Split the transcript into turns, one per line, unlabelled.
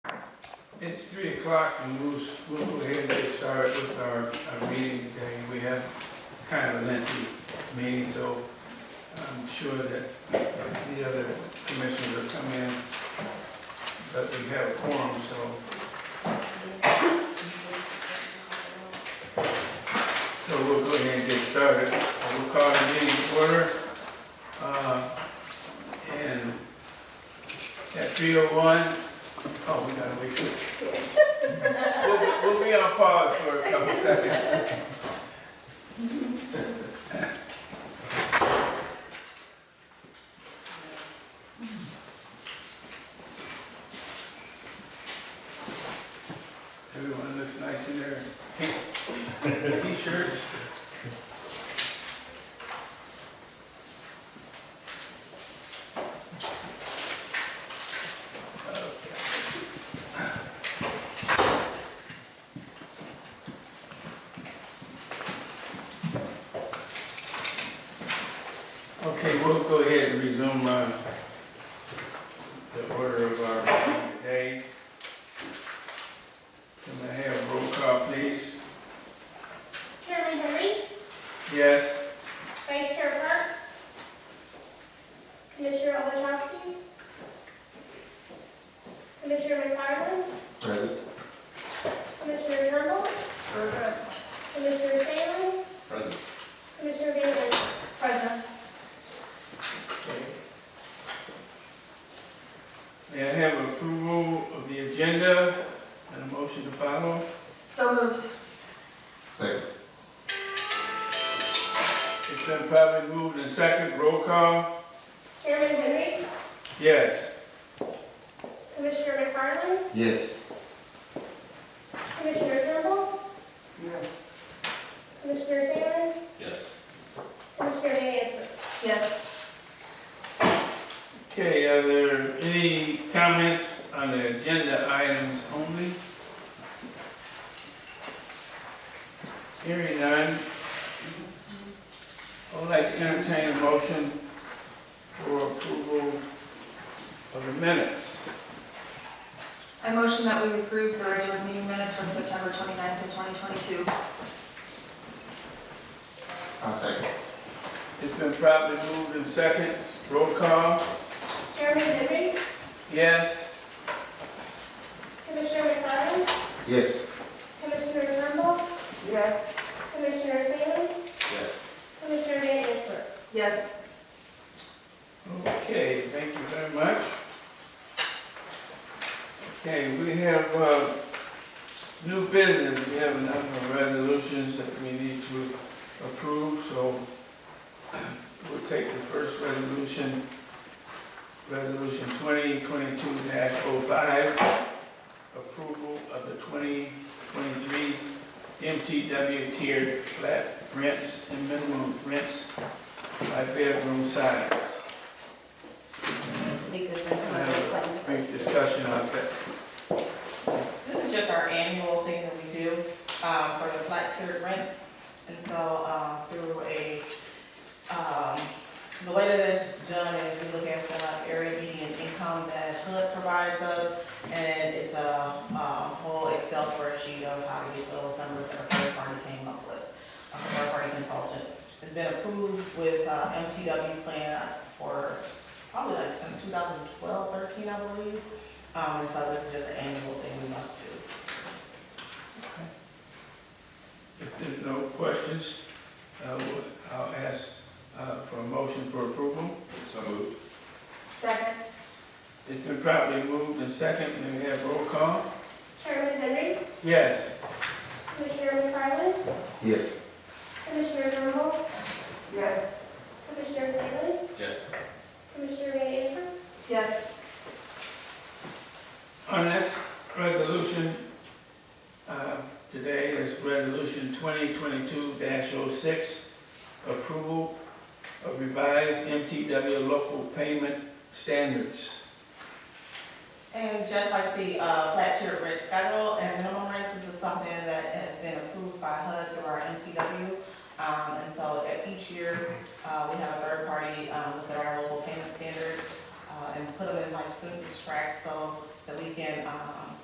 It's three o'clock and we'll, we'll go ahead and get started with our, our meeting today. We have kind of a lengthy meeting, so I'm sure that the other commissioners will come in. But we have a quorum, so, so we'll go ahead and get started. We'll call the meeting to order. Uh, And at three oh one, oh, we gotta wait. We'll, we'll be on pause for a couple seconds. Everyone looks nice in their pink t-shirts. Okay. Okay, we'll go ahead and resume uh, the order of our meeting today. Can I have roll call, please?
Chairman Henry,
Yes,
Vice Chair Parks, Commissioner Ovechowski, Commissioner McFarland,
Present.
Commissioner Turnbull,
Present.
Commissioner Salem,
Present.
Commissioner Van Ness.
Present.
may I have approval of the agenda and a motion to follow?
So moved.
Second.
It's been properly moved and second, roll call?
Chairman Henry,
Yes.
Commissioner McFarland,
Yes.
Commissioner Turnbull, Commissioner Salem,
Yes.
Commissioner Van Ness.
Yes.
Okay, are there any comments on the agenda items only? Hearing none. I would like to entertain a motion for approval of the minutes.
I motion that we approve the regular meeting minutes from September 29th of 2022.
I'll second.
It's been properly moved and second. Roll call.
Chairman Henry,
Yes?
Commissioner McFarland,
Yes.
Commissioner Turnbull,
Yes.
Commissioner Salem,
Yes.
Commissioner Van Ness.
Yes.
Okay, thank you very much. Okay, we have, uh, new business, we have a number of resolutions that we need to approve, so we'll take the first resolution, Resolution twenty twenty-two 5 approval of the twenty twenty-three MTW tiered flat rents and minimum rents by bedroom size. Brief discussion on that.
This is just our annual thing that we do uh, for the flat tiered rents. And so uh, through a, um, the way that it's done is we look at the area median income that HUD provides us. And it's a um, whole Excel spreadsheet of how to get those numbers that a third party came up with, a third party consultant. It's been approved with uh, MTW plan for probably like since 2012, 13, I believe. Um, and so this is just an annual thing we must do.
If there's no questions, uh, we'll- I'll ask uh, for a motion for approval.
So moved.
Second.
It's been properly moved and second, may we have roll call?
Chairman Henry,
Yes.
Commissioner McFarland,
Yes.
Commissioner Turnbull,
Yes.
Commissioner Salem,
Yes.
Commissioner Van Antrim,
Yes.
Our next resolution uh, today is Resolution 2022-06, approval of revised MTW local payment standards.
And just like the, um, Um, e-, uh, um, uh, um,